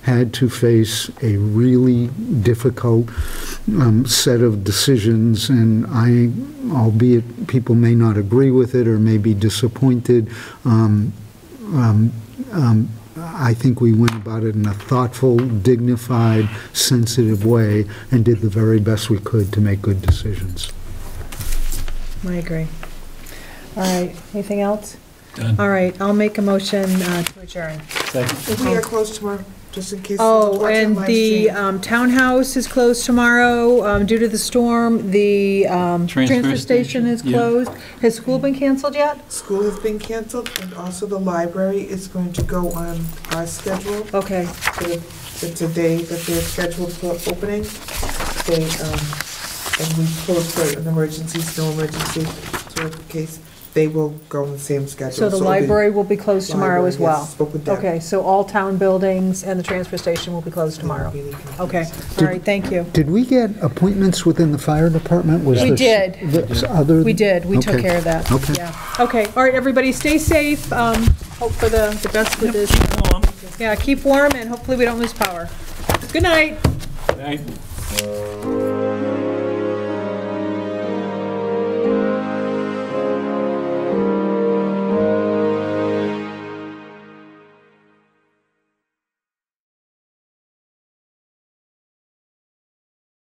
had to face a really difficult um, set of decisions, and I, albeit people may not agree with it or may be disappointed, um, um, um, I think we went about it in a thoughtful, dignified, sensitive way, and did the very best we could to make good decisions. I agree. All right, anything else? Done. All right, I'll make a motion uh, to adjourn. Second. We are closed tomorrow, just in case. Oh, watch on and live the stream. um, townhouse is closed tomorrow um, due to the storm. The um, Transfer transfer station station, is yeah. closed. Has school been canceled yet? School has been canceled, and also the library is going to go on our schedule. Okay, for the- It's a day that they're scheduled for opening. They, um, and we closed for an emergency, snow emergency, sort of case. They will go on the same schedule. so the it'll be- library will be closed tomorrow as Library, yes, well? Spoke with them. Okay, so all town buildings and the transfer station will be closed tomorrow. Okay, all Did- right, thank you. Did we get appointments within the fire department? Was We this- did. this other- We did, we took Okay. care of that. Okay. Yeah. Okay, all right, everybody, stay safe. Um, Hope for the the best with this. Yeah, keep warm, and hopefully we don't lose power. Good night. Night.